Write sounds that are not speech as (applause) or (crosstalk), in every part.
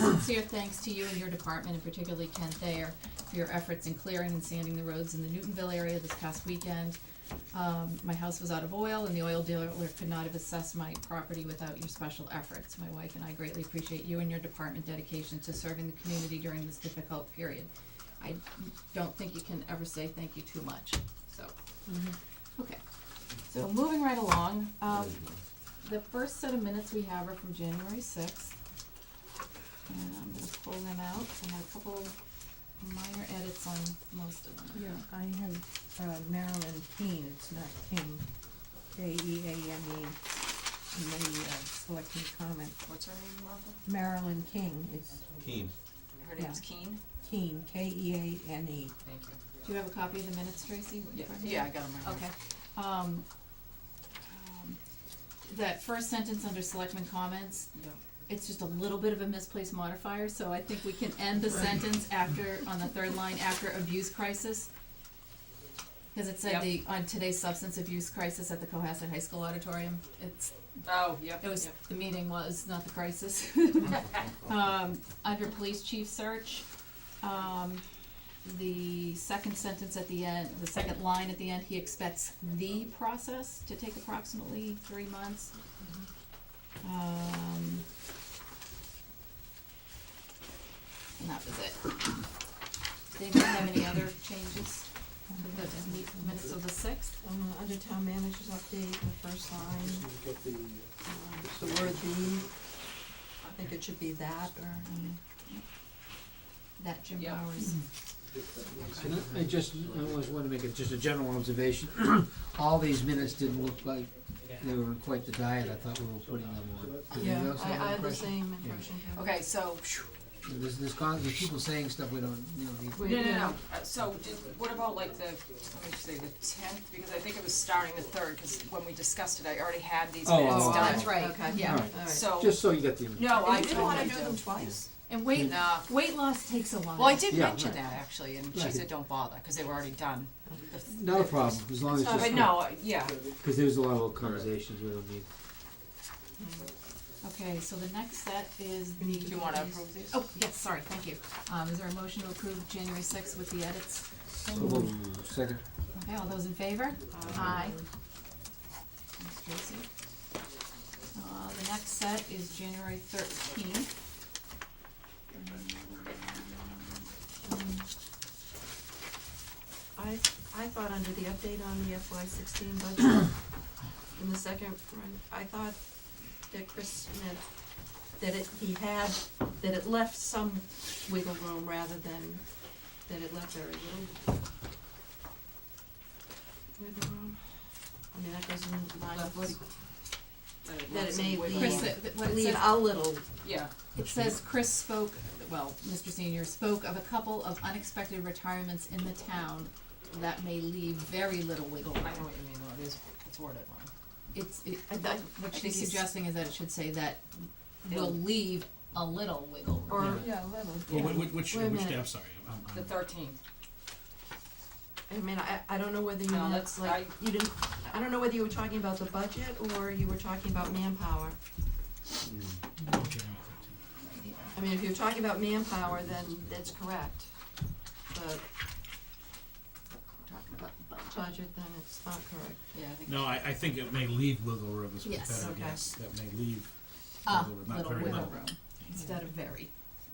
sincere thanks to you and your department, and particularly Ken Thayer, for your efforts in clearing and sanding the roads in the Newtonville area this past weekend. Um, my house was out of oil, and the oil dealer could not have assessed my property without your special efforts. My wife and I greatly appreciate you and your department dedication to serving the community during this difficult period. I don't think you can ever say thank you too much, so. Okay, so moving right along, um, the first set of minutes we have are from January sixth. And I'm gonna pull them out, I had a couple minor edits on most of them. Yeah, I have uh, Marilyn Keane, it's not E King, K-E-A-M-E, in the uh, selecting comment. What's her name, Martha? Marilyn King, it's Keen. Her name's Keen? Keane, E K-E-A-N-E. Thank you. Do you have a copy of the minutes, Tracy? in front of you? I got them Okay, um, um, that first sentence under selectmen comments, it's just a little bit of a misplaced modifier, so I think we can end the sentence after, on the third line, after abuse crisis. Cause it said Yep. the, on today's substance abuse crisis at the Cohasset High School auditorium, it's, Oh, yep, it was, yep. the meeting was, not the crisis. (laughs) Um, under police chief search, um, the second sentence at the end, the second line at the end, he expects the process to take approximately three months. Um. And that was it. Does anybody have any other changes to the minutes of the sixth? Uh, Under town manager's update, the first line, Get the, um, the word "the," I think it should be that or, Uh, That Jim Yeah. Bowers. get that- And I- I just, I always want to make it just a general observation. (clears throat) All these minutes didn't look like they were in quite the diet I thought we were putting them on. Did you yeah, also I, have I that have the impression? same Yeah. impression. Karen. Okay, so, There's, there's con, there's people saying stuff we don't, you know, need. Wait, no, no, yeah. no, Uh, so did, what about like the, let me just say the tenth, because I think it was starting the third, cause when we discussed it, I already had these Oh, minutes oh, done. oh, That's right, Okay. yeah. Alright, So, Just so you got the image. no, I You didn't wanna totally do them twice? And weight, Nah, weight loss takes a while. well, I did Yeah, mention right. that actually, and she Right. said, don't bother, cause they were already done. Not a problem, as long as It's not- But just, no, uh, yeah, because there's a lot of little conversations we don't need. Okay, so the next set is the. We need do you wanna approve these? Oh, yes, sorry, thank you. Um, is there a motion to approve January sixth with the edits? So we'll- Second, Okay, all those in favor? Aye. Thanks, Tracy. Uh, the next set is January thirteenth. I, I thought under the update on the FY sixteen budget, in the second run, I thought that Chris meant that it, he had, that it left some wiggle room rather than, that it left very little wiggle room. I mean, that goes in line with what, he- that it may Wiggle Chris, room. leave, uh, what it leave says, a little, yeah, it says Chris spoke, well, Mr. Senior spoke of a couple of unexpected retirements in the town that may leave very little wiggle I room. know what you mean, though, it is, it's worded wrong. It's, it, I thought- what I she's think he's- suggesting is that it should say that will It'll- leave a little wiggle room. or, Yeah. yeah, a little. Well, whi- whi- which, Wait a which, minute. day? I'm sorry, Um, I'm, The I'm, thirteenth, I mean, I, I don't know whether you No, meant, that's- like, you didn't, I don't know whether you were talking about the budget or you were talking about manpower. oh, January thirteenth. I mean, if you're talking about manpower, then that's correct, but Talking about the budget. budget, then it's not correct. yeah, I think. No, I, I think it may leave wiggle room is a Yes. better Okay. guess, that may leave Ah, wiggle room, not little very wiggle little. room, instead of very.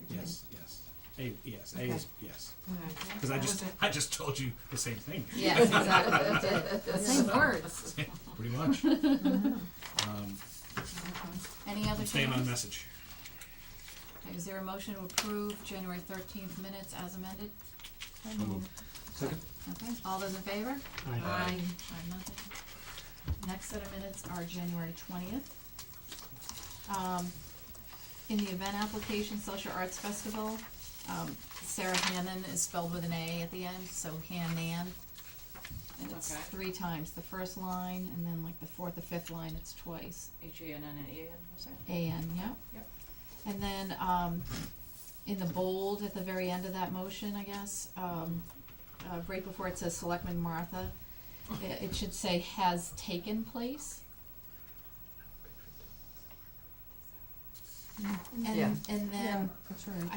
Yes, yes, A, yes, A Okay. is, yes, Alright. cause I That just, was it. I just told you the same thing, Yes, exactly, that's it, same words. pretty (laughs) much. Um, Any other I'm staying on changes? message. Okay, Is there a motion to approve January thirteenth minutes as amended? second? Okay, all those in favor? Aye. Aye, nothing. Next set of minutes are January twentieth. Um, in the event application, Social Arts Festival, um, Sarah Hannon is spelled with an A at the end, so Hanan. And it's Okay. three times, the first line, and then like the fourth or fifth line, it's twice. H A N N A N, was that? AN, yep. Yep. And then, um, in the bold at the very end of that motion, I guess, um, uh, right before it says Selectman Martha, i- it, it should say has taken place. And, Yeah. and then Mm, that's right.